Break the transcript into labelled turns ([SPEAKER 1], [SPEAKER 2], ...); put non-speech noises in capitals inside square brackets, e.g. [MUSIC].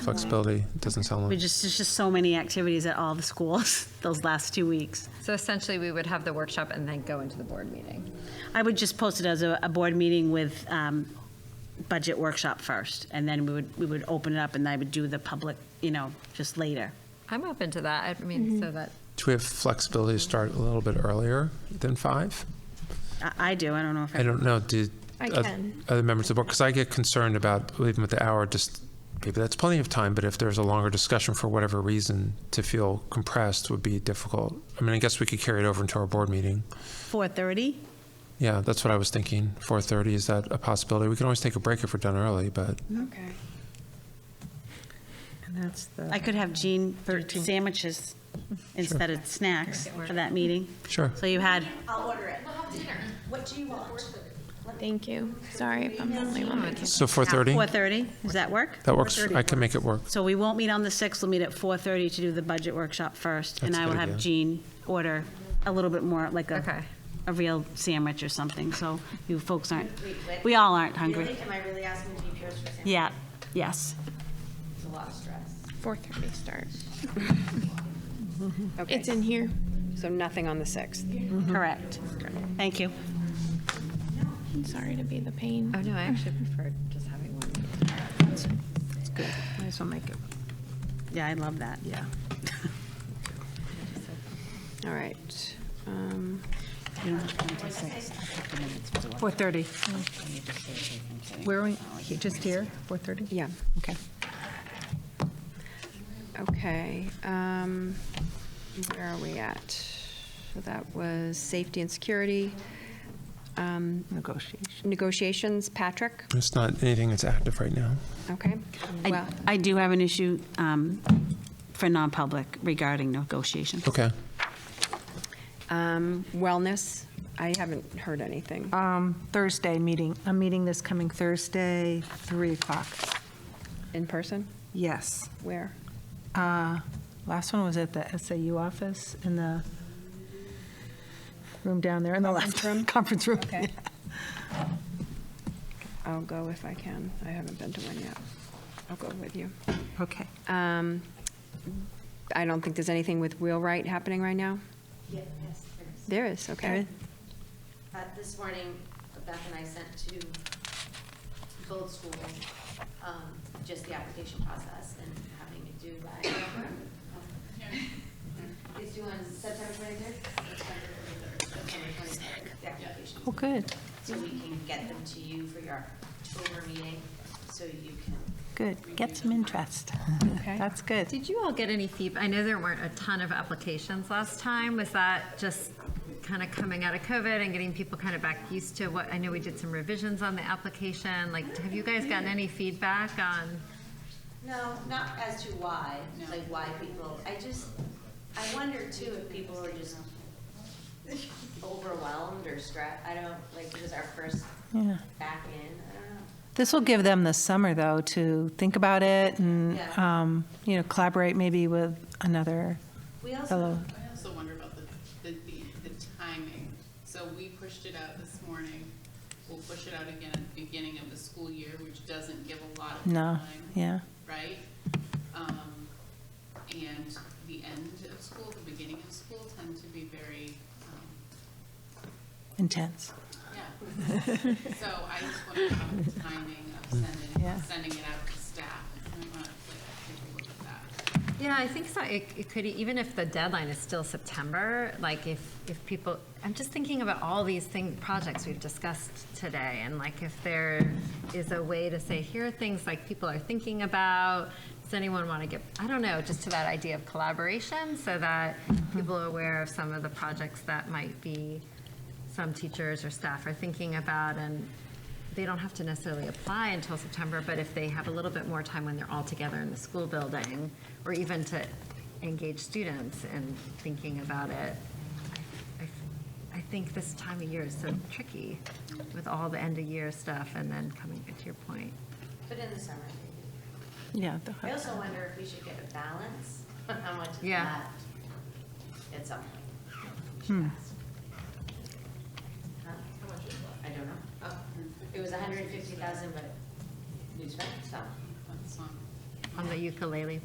[SPEAKER 1] flexibility doesn't sound
[SPEAKER 2] We
[SPEAKER 1] like.
[SPEAKER 2] just, there's just so many activities at all the schools [LAUGHS] those last two weeks.
[SPEAKER 3] So essentially, we would have the workshop and then go into the board meeting.
[SPEAKER 2] I would just post it as a, a board meeting with um, budget workshop first, and then we would, we would open it up, and I would do the public, you know, just later.
[SPEAKER 3] I'm open to that. I mean, so that
[SPEAKER 1] Do we have flexibility to start a little bit earlier than five?
[SPEAKER 2] I, I do, I don't know if.
[SPEAKER 1] I don't know, do.
[SPEAKER 4] I
[SPEAKER 1] oth-
[SPEAKER 4] can.
[SPEAKER 1] Other members of the board, because I get concerned about leaving with the hour, just, maybe that's plenty of time, but if there's a longer discussion for whatever reason, to feel compressed would be difficult. I mean, I guess we could carry it over into our board meeting.
[SPEAKER 2] 4:30?
[SPEAKER 1] Yeah, that's what I was thinking. 4:30, is that a possibility? We can always take a break if we're done early, but
[SPEAKER 4] Okay.
[SPEAKER 5] And that's
[SPEAKER 2] I
[SPEAKER 5] the,
[SPEAKER 2] could have Jean do sandwiches instead of snacks for that meeting.
[SPEAKER 1] sure.
[SPEAKER 2] So you had,
[SPEAKER 6] I'll order it. We'll have dinner. What do you want?
[SPEAKER 4] Thank you. Sorry if I'm the only one. that
[SPEAKER 1] So 4:30?
[SPEAKER 2] 4:30, does that work?
[SPEAKER 1] That works. I can make it work.
[SPEAKER 2] So we won't meet on the 6th, we'll meet at 4:30 to do the budget workshop first, and
[SPEAKER 1] That's a
[SPEAKER 2] I will
[SPEAKER 1] good
[SPEAKER 2] have
[SPEAKER 1] idea.
[SPEAKER 2] Jean order a little bit more, like a,
[SPEAKER 3] Okay.
[SPEAKER 2] a real sandwich or something, so you folks aren't, we all aren't
[SPEAKER 6] Really,
[SPEAKER 2] hungry.
[SPEAKER 6] am I really asking to be peers for sandwich?
[SPEAKER 2] Yeah, yes.
[SPEAKER 6] It's a lot of stress.
[SPEAKER 4] 4:30 start. It's in here.
[SPEAKER 5] so nothing on the 6th.
[SPEAKER 6] Mm-hmm.
[SPEAKER 2] Correct. Thank you.
[SPEAKER 4] Sorry to be the pain.
[SPEAKER 3] oh no, I actually prefer just having one. meeting.
[SPEAKER 5] It's good. I just want to make it,
[SPEAKER 2] Yeah, I love that.
[SPEAKER 5] yeah. All right. um,
[SPEAKER 7] 4:30. Where are we, He- just here, 4:30?
[SPEAKER 5] Yeah,
[SPEAKER 7] Okay.
[SPEAKER 5] okay. um, Where are we at? So that was safety and security. Um,
[SPEAKER 7] Negotiation.
[SPEAKER 5] Negotiations, Patrick,
[SPEAKER 1] It's not anything that's active right now.
[SPEAKER 5] okay?
[SPEAKER 2] I,
[SPEAKER 5] Well,
[SPEAKER 2] I do have an issue um, for non-public regarding negotiations.
[SPEAKER 1] Okay.
[SPEAKER 5] um, Wellness, I haven't heard anything.
[SPEAKER 7] Thursday meeting, I'm meeting this coming Thursday, 3 o'clock.
[SPEAKER 5] In person?
[SPEAKER 7] Yes.
[SPEAKER 5] Where?
[SPEAKER 7] Uh, Last one was at the SAU office in the room down there in the left.
[SPEAKER 5] room?
[SPEAKER 7] [LAUGHS] Conference room.
[SPEAKER 5] I'll go if I can. I haven't been to one yet. I'll go with you.
[SPEAKER 7] Okay.
[SPEAKER 5] Um, I don't think there's anything with wheelwright happening right now.
[SPEAKER 6] Yeah, yes, there's.
[SPEAKER 5] There is, okay.
[SPEAKER 6] Uh, this morning, Beth and I sent to both schools, um, just the application process and having it due by. It's due on September twenty-third? September twenty-third, the application.
[SPEAKER 7] Oh, good,
[SPEAKER 6] So we can get them to you for your October meeting, so you can
[SPEAKER 7] good. Get some interest.
[SPEAKER 5] Okay.
[SPEAKER 7] That's good.
[SPEAKER 3] Did you all get any feedback? I know there weren't a ton of applications last time. Was that just kind of coming out of COVID and getting people kind of back used to what? I know we did some revisions on the application. Like, have you guys gotten any feedback on?
[SPEAKER 6] No, not as to why, like why people, I just, I wonder too if people are just overwhelmed or stressed, I don't, like, it was our first
[SPEAKER 7] Yeah.
[SPEAKER 6] back in, I don't know.
[SPEAKER 7] This will give them the summer, though, to think about it and,
[SPEAKER 6] Yeah.
[SPEAKER 7] um, you know, collaborate maybe with another
[SPEAKER 6] We also,
[SPEAKER 7] fellow.
[SPEAKER 8] I also wonder about the, the, the- the timing. So we pushed it out this morning. We'll push it out again at the beginning of the school year, which doesn't give a lot of
[SPEAKER 7] No,
[SPEAKER 8] time,
[SPEAKER 7] yeah.
[SPEAKER 8] right? Um, and the end of school, the beginning of school tend to be very, um,
[SPEAKER 7] Intense.
[SPEAKER 8] yeah. So I just wonder about the timing of
[SPEAKER 7] Yeah.
[SPEAKER 8] sending, sending it out to staff. And I want to, like, take a look at that.
[SPEAKER 3] Yeah, I think so. It, it could, e, even if the deadline is still September, like if, if people, I'm just thinking about all these thing, projects we've discussed today. And like if there is a way to say, here are things like people are thinking about, does anyone want to get, I don't know, just to that idea of collaboration so that people are aware of some of the projects that might be, some teachers or staff are thinking about and they don't have to necessarily apply until September, but if they have a little bit more time when they're all together in the school building, or even to engage students in thinking about it, I- I- I think this time of year is so tricky with all the end of year stuff and then coming back to your point.
[SPEAKER 6] but in the summer,
[SPEAKER 7] Yeah.
[SPEAKER 6] I also wonder if we should get a balance on [LAUGHS] how much of
[SPEAKER 3] Yeah.
[SPEAKER 6] that at some point. We should ask. Huh? I don't know. Oh, It was a hundred and fifty thousand, but we spent some.
[SPEAKER 8] That's not,
[SPEAKER 3] on the ukulele